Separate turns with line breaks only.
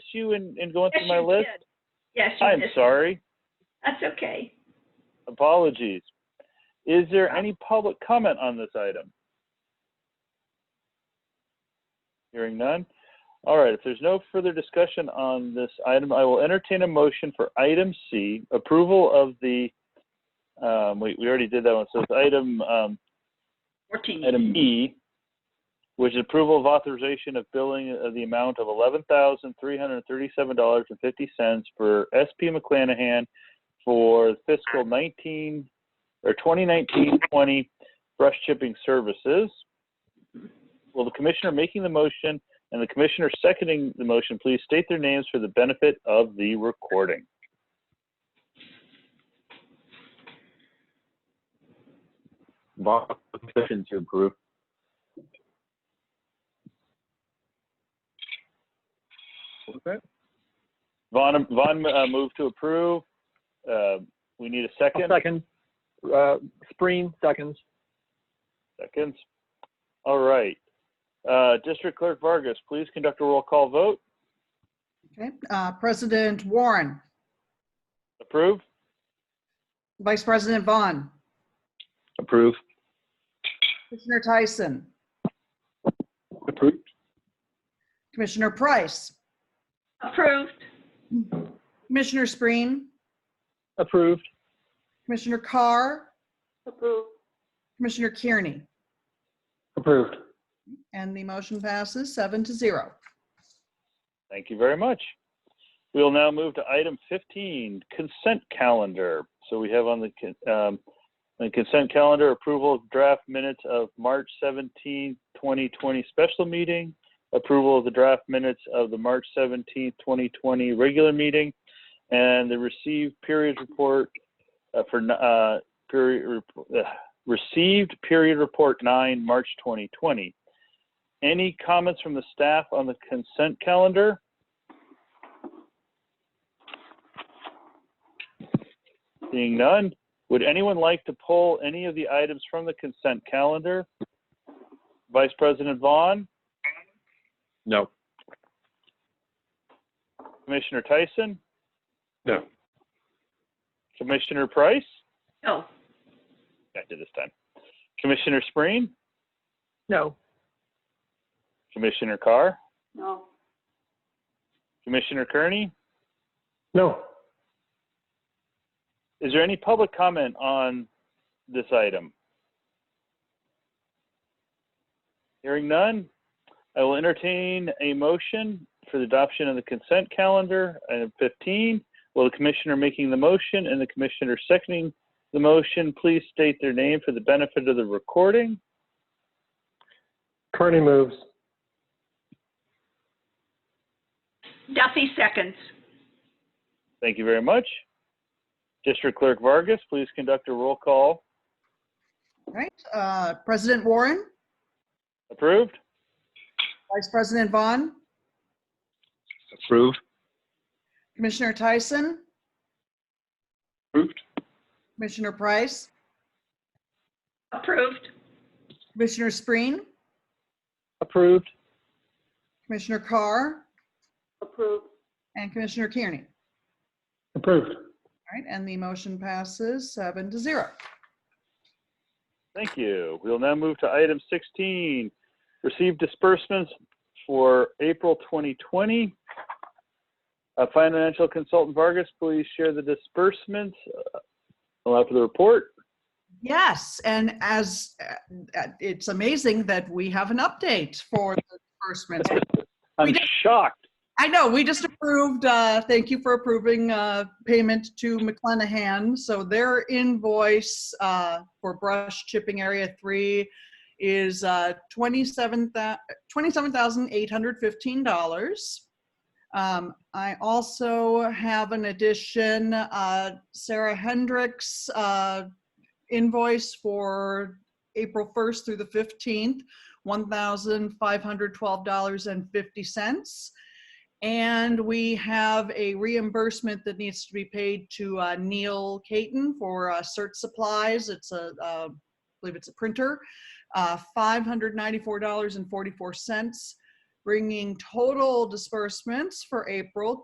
you in, in going
Yes,
through my
you
list?
did. Yes, you
I'm
did.
sorry.
That's okay.
Apologies. Is there any public comment on this item? Hearing none. All right, if there's no further discussion on this item, I will entertain a motion for item C, approval of the, um, we, we already did that one, so it's item, um,
Fourteen.
Item E, which is approval of authorization of billing of the amount of eleven thousand three hundred thirty-seven dollars and fifty cents for SP McClanahan for fiscal nineteen, or 2019-20 brush chipping services. Will the commissioner making the motion and the commissioner seconding the motion please state their names for the benefit of the recording?
Bob, motion to approve.
Vaughn, Vaughn, uh, move to approve. Uh, we need a
I'll
second.
second. Uh, Spreen, seconds.
Seconds. All right. Uh, District Clerk Vargas, please conduct a roll call vote.
Okay, uh, President Warren,
Approve?
Vice President Vaughn,
Approve.
Commissioner Tyson,
Approve.
Commissioner Price,
Approved.
Commissioner Spreen,
Approved.
Commissioner Carr,
Approved.
Commissioner Kearney,
Approved.
and the motion passes seven to zero.
Thank you very much. We will now move to item 15, consent calendar. So we have on the con- um, the consent calendar approval of draft minutes of March 17, 2020 special meeting, approval of the draft minutes of the March 17, 2020 regular meeting, and the received period report uh, for n- uh, period rep- uh, received period report 9 March 2020. Any comments from the staff on the consent calendar? Seeing none, would anyone like to pull any of the items from the consent calendar? Vice President Vaughn,
No.
Commissioner Tyson,
No.
Commissioner Price,
No.
got you this time, Commissioner Spreen,
No.
Commissioner Carr,
No.
Commissioner Kearney.
No.
Is there any public comment on this item? Hearing none, I will entertain a motion for the adoption of the consent calendar, item 15. Will the commissioner making the motion and the commissioner seconding the motion please state their name for the benefit of the recording?
Kearney moves.
Duffy seconds.
Thank you very much. District Clerk Vargas, please conduct a roll call.
All right, uh, President Warren,
Approved?
Vice President Vaughn,
Approved.
Commissioner Tyson,
Approved.
Commissioner Price,
Approved.
Commissioner Spreen,
Approved.
Commissioner Carr,
Approved.
and Commissioner Kearney.
Approved.
All right, and the motion passes seven to zero.
Thank you. We'll now move to item 16, receive disbursements for April 2020. Uh, Financial consultant Vargas, please share the disbursements. Uh, Allow for the report.
Yes, and as uh, uh, it's amazing that we have an update for the disbursements. We
I'm
did.
shocked.
I know, we just approved, uh, thank you for approving uh, payment to McClenahan. So their invoice uh, for brush chipping area three is uh, twenty-seven thou- $27,815. Um, I also have an addition, uh, Sarah Hendricks uh, invoice for April 1st through the 15th, $1,512.50. And we have a reimbursement that needs to be paid to uh, Neil Caton for uh, cert supplies. It's a, uh, I believe it's a printer, uh, $594.44. bringing total disbursements for April